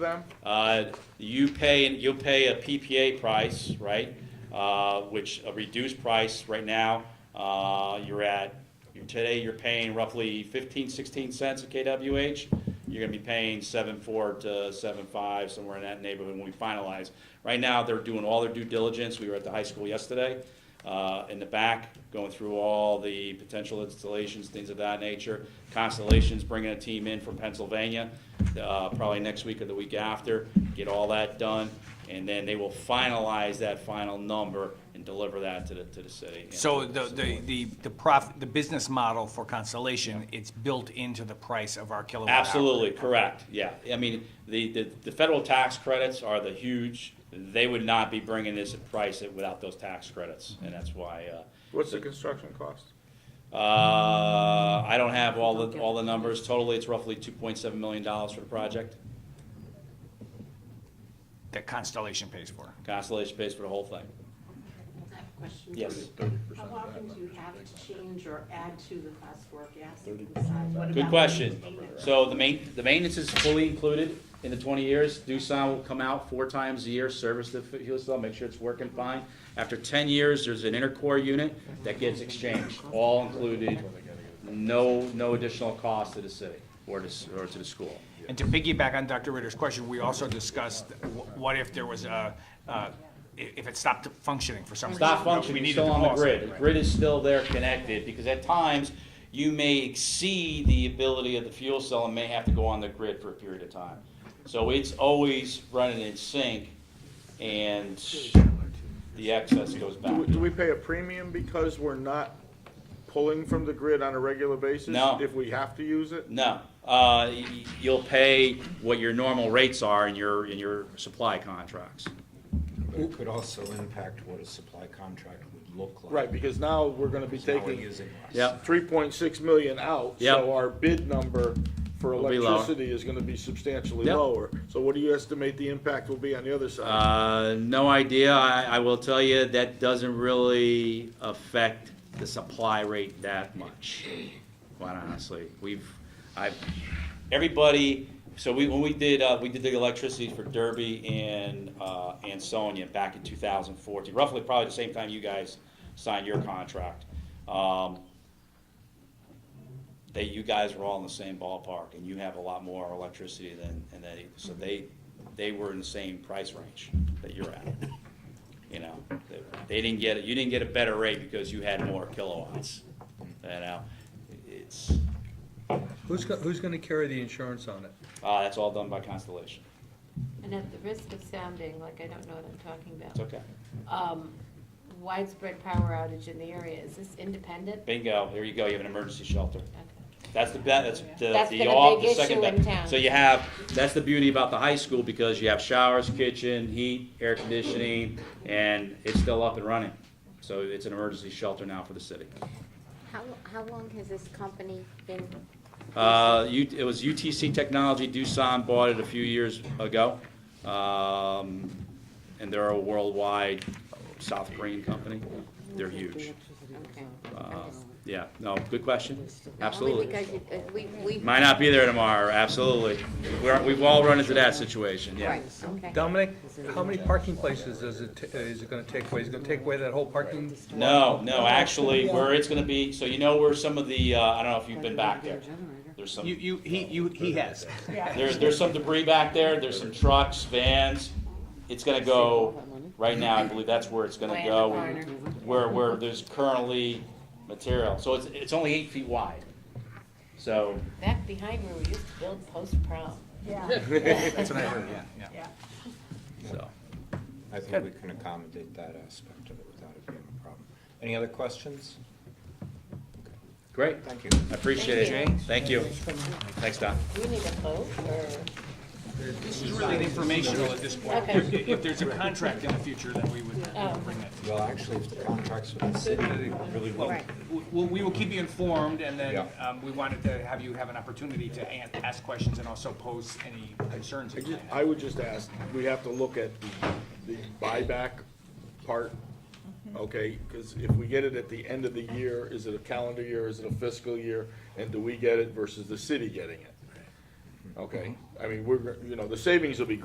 them? Uh, You pay, you'll pay a PPA price, right? Uh, Which, a reduced price right now, uh, you're at, you're- today you're paying roughly 15, 16 cents a kWh. You're gonna be paying 7.4 to 7.5, somewhere in that neighborhood when we finalize. Right now, they're doing all their due diligence. We were at the high school yesterday uh, in the back, going through all the potential installations, things of that nature. Constellation's bringing a team in from Pennsylvania, uh, probably next week or the week after, get all that done, and then they will finalize that final number and deliver that to the, to the city. and So to the, the, the, the prof, the business model for Constellation, it's built into the price of our kilowatt hour. Absolutely, correct, yeah. I mean, the, the, the federal tax credits are the huge, they would not be bringing this at price without those tax credits, and that's why, uh, What's the construction cost? Uh, I don't have all the, all the numbers. Totally, it's roughly two point seven million dollars for the project. That Constellation pays for. Constellation pays for the whole thing. I have a question. Yes. How often do you have to change or add to the class four gas? inside? What Good about question. maintenance? So the main, the maintenance is fully included in the twenty years. Doosan will come out four times a year, service the fuel cell, make sure it's working fine. After ten years, there's an intercore unit that gets exchanged, all included, no, no additional cost to the city or to, s- or to the school. And to piggyback on Dr. Ritter's question, we also discussed, wh- what if there was a, uh, i- if it stopped functioning for some reason? Stop We functioning, needed still on the pause it, grid. The right. grid is still there connected, because at times, you may exceed the ability of the fuel cell and may have to go on the grid for a period of time. So it's always running in sync, and the excess goes Do, back. we- do we pay a premium because we're not pulling from the grid on a regular basis? No. If we have to use it? No, uh, y- y- you'll pay what your normal rates are in your, in your supply contracts. But it could also impact what a supply contract would look like. Right, because now we're gonna be Now we're taking using less. Yep, three point six million out. Yep. So our bid number for Will be lower. electricity is gonna be substantially Yep. lower. So what do you estimate the impact will be on the other side? uh, no idea. I, I will tell you, that doesn't really affect the supply rate that much. quite honestly. We've, I've, everybody, so we, when we did, uh, we did the electricity for Derby and, uh, and Sonia back in two thousand fourteen, roughly probably the same time you guys signed your contract. Um, they, you guys were all in the same ballpark, and you have a lot more electricity than, and they, so they, they were in the same price range that you're at. You know, they- they didn't get, you didn't get a better rate because you had more kilowatts, you know? It's, Who's, go- who's gonna carry the insurance on it? uh, that's all done by Constellation. And at the risk of sounding like I don't know what I'm talking It's about, okay. um, widespread power outage in the area, is this independent? Bingo, there you go, you have an emergency shelter. Okay. That's the, be- that's the, That's the been a off, big the second. issue best. in town. So you have, that's the beauty about the high school, because you have showers, kitchen, heat, air conditioning, and it's still up and running. So it's an emergency shelter now for the city. How, how long has this company been, Uh, U- it was UTC Technology, Doosan bought it a few years ago. Um, and they're a worldwide South Korean company. They're huge. okay. Uh, Yeah, no, good question, absolutely. Only because you, uh, we, we. Might not be there tomorrow, absolutely. We're, we've all run into that situation, yeah. Right, okay. Dominic, how many parking places does it, ta- is it gonna take away? Is it gonna take away that whole parking? No, no, actually, where it's gonna be, so you know where some of the, uh, I don't know if you've been back there. There's some, You, you, he, you, he has. there's, there's some debris back there, there's some trucks, vans. It's gonna go, right now, I believe that's where it's gonna Way in the go. corner. Where, where there's currently material, so it's, it's only eight feet wide. So, Back behind where we used to build post-prom. Yeah, That's what I heard, yeah, yeah. yeah. so. I think we can accommodate that aspect of it without it being a problem. Any other questions? Great, Thank you. I appreciate it. Thank you. Thanks, Don. Do we need a vote This is really informational at this point. Okay. If, if there's a contract in the future, then we would Oh. bring that. Well, actually, if the contracts with the city, they really will. Right. Well, we will keep you informed, and then Yeah. um, we wanted to have you have an opportunity to an- ask questions and also pose any concerns I you might just- have. I would just ask, we have to look at the buyback part, okay? Because if we get it at the end of the year, is it a calendar year, is it a fiscal year? And do we get it versus the city getting it? okay? I mean, we're, you know, the savings will be